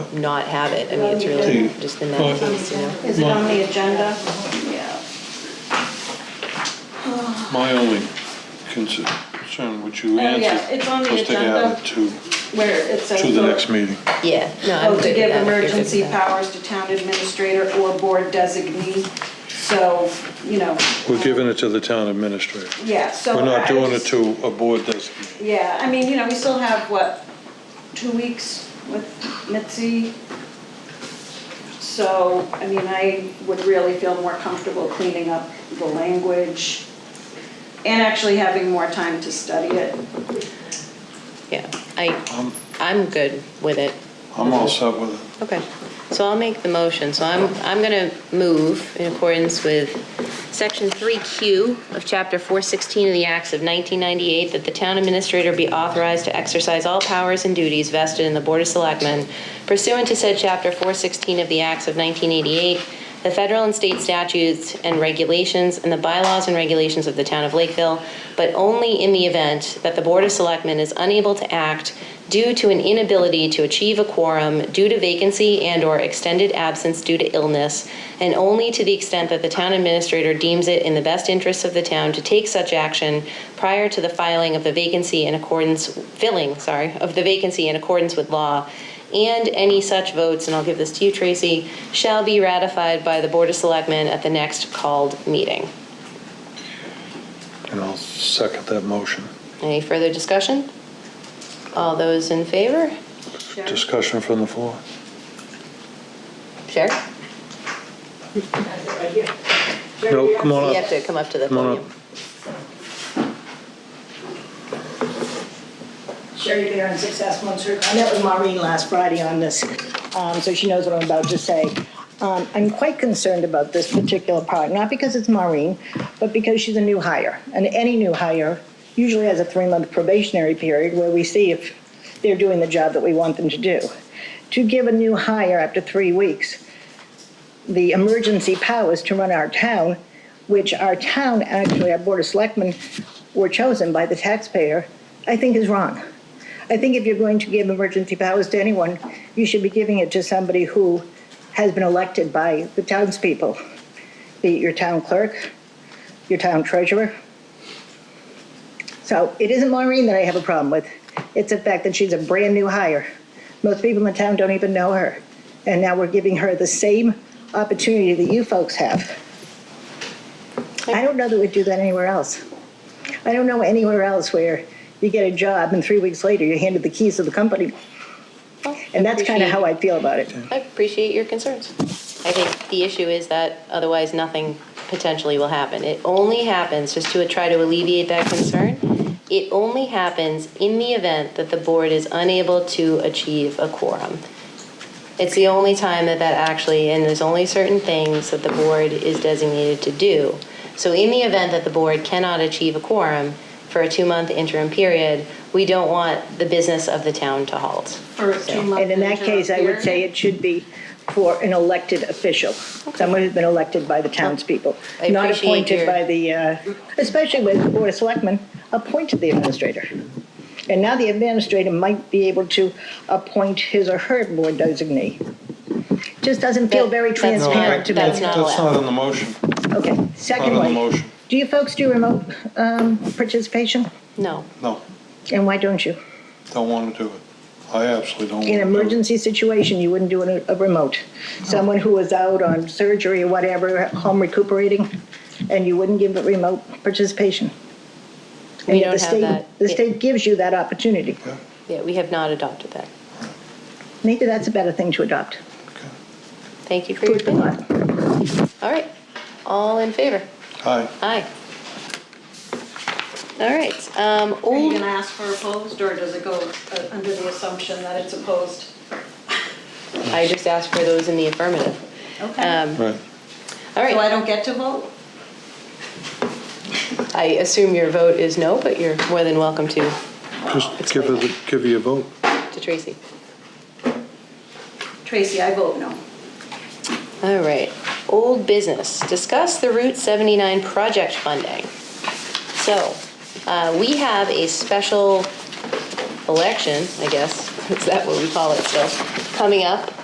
not have it. I mean, it's really Two. just the nineties, you know? Is it on the agenda? Yeah. My only concern, which you Oh, yeah, answered, it's on the was to agenda. add it to, Where it says. to the next meeting. Yeah, no, I'm Oh, good to with give that, if you're good emergency with that. powers to town administrator or board designee, so, you know. We're giving it to the town administrator. Yeah, so. We're I not doing it just- to a board designee. Yeah, I mean, you know, we still have, what, two weeks with Mitzi? So, I mean, I would really feel more comfortable cleaning up the language and actually having more time to study it. Yeah, I, I'm good with it. I'm all set with it. Okay, so I'll make the motion. So I'm, I'm going to move in accordance with Section 3Q of Chapter 416 of the Acts of 1998, that the town administrator be authorized to exercise all powers and duties vested in the Board of Selectmen pursuant to said Chapter 416 of the Acts of 1988, the federal and state statutes and regulations, and the bylaws and regulations of the town of Lakeville, but only in the event that the Board of Selectmen is unable to act due to an inability to achieve a quorum due to vacancy and/or extended absence due to illness, and only to the extent that the town administrator deems it in the best interests of the town to take such action prior to the filing of the vacancy in accordance, filling, sorry, of the vacancy in accordance with law, and any such votes, and I'll give this to you, Tracy, shall be ratified by the Board of Selectmen at the next called meeting. And I'll second that motion. Any further discussion? All those in favor? Sharon? Discussion from the floor. Sherry? No, come You on have up. to come up to the Come on podium. up. Sherry Bear on Six Aspen Street. I met with Maureen last Friday on this, um, so she knows what I'm about to say. Um, I'm quite concerned about this particular part, not because it's Maureen, but because she's a new hire. And any new hire usually has a three-month probationary period where we see if they're doing the job that we want them to do. To give a new hire after three weeks the emergency powers to run our town, which our town, actually, our Board of Selectmen were chosen by the taxpayer, I think is wrong. I think if you're going to give emergency powers to anyone, you should be giving it to somebody who has been elected by the townspeople, be it your town clerk, your town treasurer. So it isn't Maureen that I have a problem with. It's the fact that she's a brand-new hire. Most people in the town don't even know her. And now we're giving her the same opportunity that you folks have. I don't know that we'd do that anywhere else. I don't know anywhere else where you get a job and three weeks later you're handed the keys to the company. Well, And that's kind of how I feel about it. appreciate- I appreciate your concerns. I think the issue is that otherwise nothing potentially will happen. It only happens, just to try to alleviate that concern, it only happens in the event that the board is unable to achieve a quorum. It's the only time that that actually, and there's only certain things that the board is designated to do. So in the event that the board cannot achieve a quorum for a two-month interim period, we don't want the business of the town to halt. For a two-month And in that case, I would say it should be for an elected official, someone who's been elected by the townspeople, I not appreciate your- appointed by the, uh, especially with the Board of Selectmen, appointed the administrator. And now the administrator might be able to appoint his or her board designee. Just doesn't feel That- very that's not- transparent to me. That's not That's allowed. not in the motion. Okay, second Not on the one, motion. do you folks do remote um, participation? No. No, And why don't you? don't want to do it. I absolutely don't want to In do it. an emergency situation, you wouldn't do a, a remote. Someone who was out on surgery or whatever, home recuperating, and you wouldn't give it remote participation. We And yet don't the have state- that. The It- state gives you that opportunity. Yeah, Yeah, we have not adopted that. Maybe that's a better thing to adopt. okay. Thank you for your Food for opinion. thought. All right, all in favor? Aye. Aye. All right, um, Are you old, gonna ask for opposed, or does it go uh, under the assumption that it's opposed? I just asked for those in the affirmative. Okay. Um, Right. all So I right, don't get to vote? I assume your vote is no, but you're more than welcome to, Just give her, the- give her your vote. to Tracy. Tracy, I vote no. All right, old business, discuss the Route 79 project funding. So, uh, we have a special election, I guess, is that what we call it still, coming up